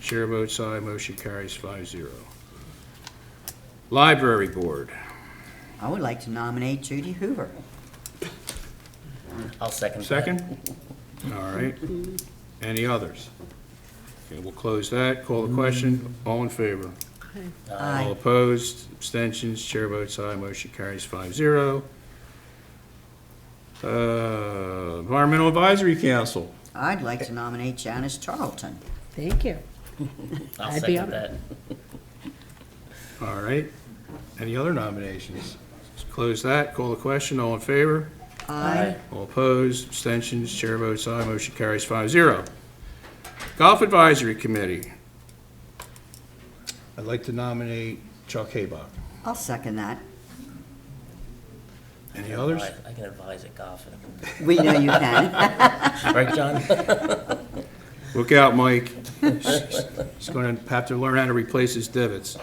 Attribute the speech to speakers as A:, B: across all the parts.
A: Chair votes aye, motion carries five zero. Library Board,
B: I would like to nominate Judy Hoover.
C: I'll second that.
A: second? All right. Any others? Okay, we'll close that, call the question, all in favor? All
B: Aye.
A: opposed, abstentions, chair votes aye, motion carries five zero. Uh, Environmental Advisory Council,
B: I'd like to nominate Janice Charlton.
D: Thank you.
C: I'll
D: I'd be
C: second that.
A: all right. Any other nominations? Let's Close that, call the question, all in favor?
C: Aye.
A: All opposed, abstentions, chair votes aye, motion carries five zero. Golf Advisory Committee. I'd like to nominate Chuck Haybuck.
B: I'll second that.
A: Any others?
C: I can advise at golf.
B: We know you can.
C: Right, John?
A: Look out, Mike. He's going to have to learn how to replace his divots.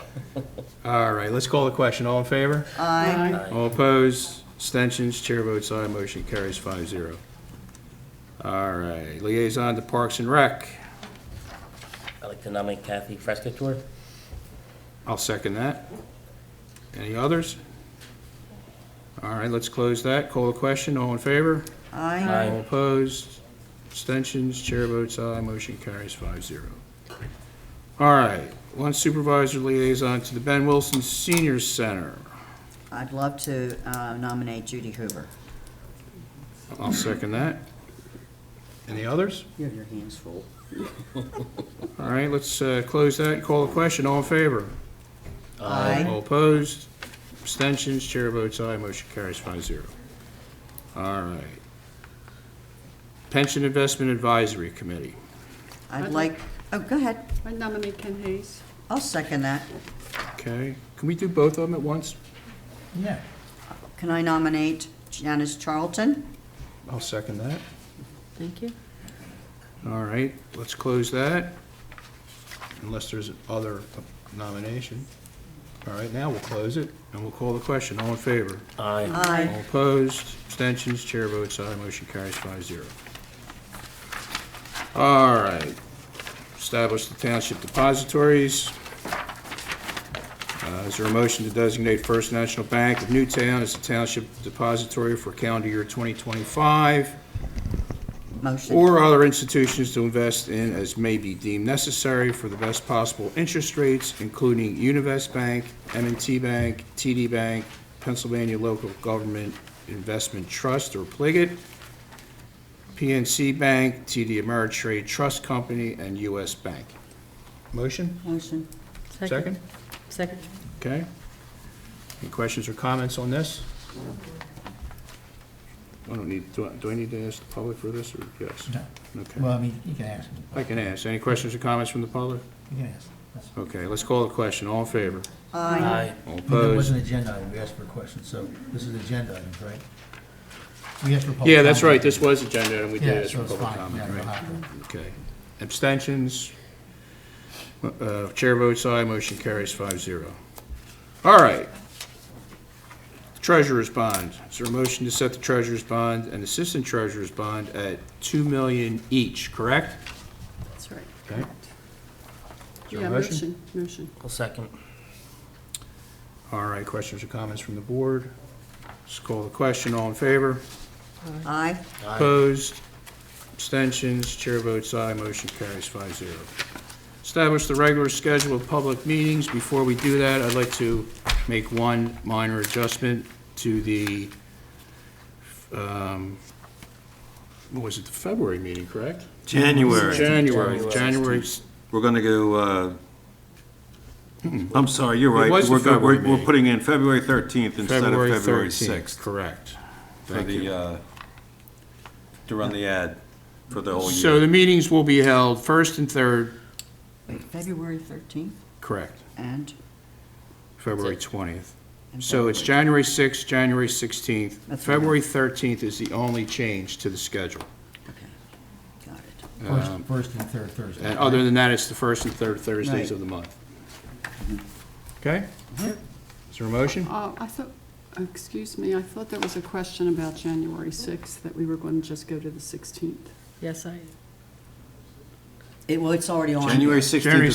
A: All right, let's call the question. All in favor?
B: Aye.
A: All opposed? Abstentions? Chair votes aye. Motion carries five zero. All right, liaison to Parks and Rec.
C: I'd like to nominate Kathy Frescatore.
A: I'll second that. Any others? All right, let's close that. Call the question. All in favor?
B: Aye.
A: All opposed? Abstentions? Chair votes aye. Motion carries five zero. All right, one supervisor liaison to the Ben Wilson Senior Center.
B: I'd love to uh, nominate Judy Hoover.
A: I'll second that. Any others?
B: You have your hands full.
A: All right, let's uh, close that and call the question. All in favor?
B: Aye.
A: All opposed? Abstentions? Chair votes aye. Motion carries five zero. All right. Pension Investment Advisory Committee.
B: I'd
E: I'd
B: like, oh, go ahead.
E: I nominate Ken Hayes.
B: I'll second that.
A: Okay, can we do both of them at once?
C: Yeah.
B: Can I nominate Janice Charlton?
A: I'll second that.
D: Thank you.
A: All right, let's close that, unless there's other nomination. All right, now we'll close it, and we'll call the question. All in favor?
C: Aye.
A: All
B: Aye.
A: opposed, abstentions, chair votes aye, motion carries five zero. All right, establish the township depositories. Uh, Is there a motion to designate First National Bank of Newtown as the township depository for calendar year 2025?
B: Motion.
A: Or other institutions to invest in as may be deemed necessary for the best possible interest rates, including Univest Bank, m and t Bank, TD Bank, Pennsylvania Local Government Investment Trust or Pligot, PNC Bank, TD Ameritrade Trust Company, and US Bank. Motion?
B: Motion.
A: Second?
D: Second.
A: Okay. Any questions or comments on this? I don't need, do I, do I need to ask the public for this, or yes? No. Okay.
F: Well, I mean, you can ask, him.
A: I can ask. Any questions or comments from the public?
F: you can ask. That's-
A: Okay, let's call the question. All in favor?
B: Aye.
A: All
F: There was
A: opposed?
F: an agenda item, we asked for a question, so this is agenda items, right? We asked for public.
A: Yeah, that's right.
F: comment.
A: This was agenda, and we
F: Yeah,
A: did ask
F: so
A: for
F: it's
A: public
F: fine.
A: comment,
F: Yeah, no
A: right?
F: hot-
A: Okay. Abstentions? Uh, Chair votes aye, motion carries five zero. All right. Treasurer's bond. Is there a motion to set the treasurer's bond and assistant treasurer's bond at two million each, correct?
E: That's right.
A: Okay. there a
E: Yeah,
A: motion?
E: motion, motion.
C: I'll second.
A: All right, questions or comments from the board? Let's call the question. All in favor?
B: Aye.
C: Aye.
A: Opposed? Abstentions? Chair votes aye, motion carries five zero. Establish the regular schedule of public meetings. Before we do that, I'd like to make one minor adjustment to the, um, what was it, the February meeting, correct?
G: January.
A: January,
C: January.
A: January, s-
G: We're going to go, uh, I'm sorry, you're right.
A: was the
G: We're go-
A: February
G: we're-
A: meeting.
G: We're putting in February 13th instead of
A: February
G: February
A: 13th.
G: 6th
A: Correct.
G: for
A: Thank you.
G: the, uh, to run the ad for the whole
A: So
G: year.
A: the meetings will be held first and third,
B: Wait, February 13th
A: correct,
B: and?
A: February
C: That's
A: 20th.
B: and
A: So it's
B: February.
A: January 6th, January 16th.
B: That's fine.
A: February 13th is the only change to the schedule.
B: Okay. Got it.
F: First,
A: Um,
F: first and third Thursday.
A: And other than that, it's the first and third Thursdays
B: Right. Mm-hmm.
A: of the month. Okay? Is there a motion?
E: Uh, I thought, excuse me, I thought there was a question about January 6th, that we were going to just go to the 16th.
D: Yes, I.
B: It, well, it's already on.
G: January 16th
A: January